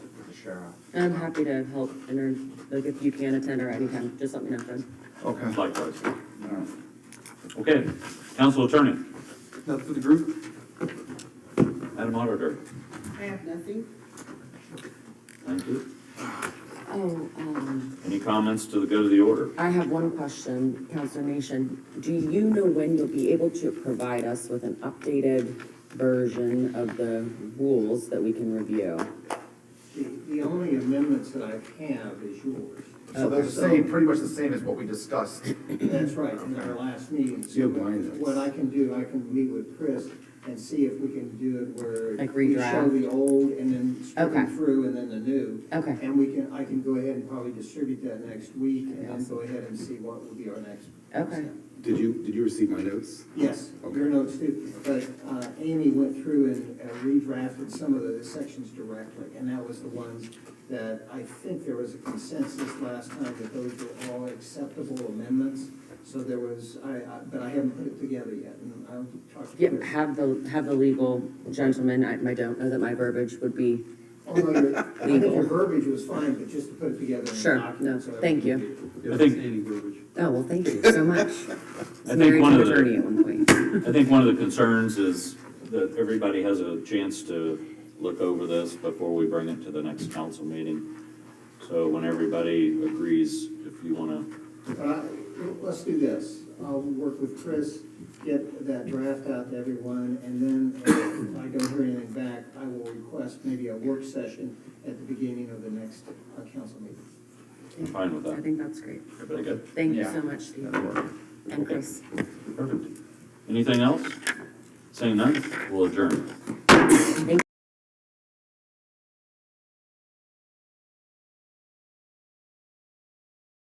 Sharon. And I'm happy to help, and or, like, if you can attend or anytime, just let me know, Fred. Okay. Likewise. All right. Okay, council attorney, That for the group? Madam Auditor, I have nothing. thank you. Oh, um, Any comments to the good of the order? I have one question, Counselor Nation. Do you know when you'll be able to provide us with an updated version of the rules that we can review? The, the only amendments that I have is yours. So they're Uh, the same, pretty much the same as what we discussed. That's right, in our last meeting. You have mine. What I can do, I can meet with Chris and see if we can do it where. Like We show redraft? the old and then scroll Okay. through and then the new. Okay. And we can, I can go ahead and probably distribute that next week and then Yes. go ahead and see what will be our next. Okay. step. Did you, did you receive my notes? Yes, your notes too, but uh, Amy went through and uh, redrafted some of the sections directly, and that was the ones that I think there was a consensus last time that those were all acceptable amendments, so there was, I, I- but I haven't put it together yet, and I'll talk to Yep, Chris. have the, have the legal gentleman, I, I don't know that my verbiage would be, Although your, I think Legal. your verbiage was fine, but just to put it together in Sure, a no, document. so thank everyone you. I think, oh, well, thank you so much. I Married think one to of Attorney the, at one point. I think one of the concerns is that everybody has a chance to look over this before we bring it to the next council meeting. So when everybody agrees, if you want to But I- Let's do this. I'll work with Chris, get that draft out to everyone, and then uh, if I don't hear anything back, I will request maybe a work session at the beginning of the next uh, council meeting. I'm fine with I that. think that's great. Everybody good? Thank you Yeah. so much, Steve. And Chris. Perfect. Anything else? Saying none, we'll adjourn.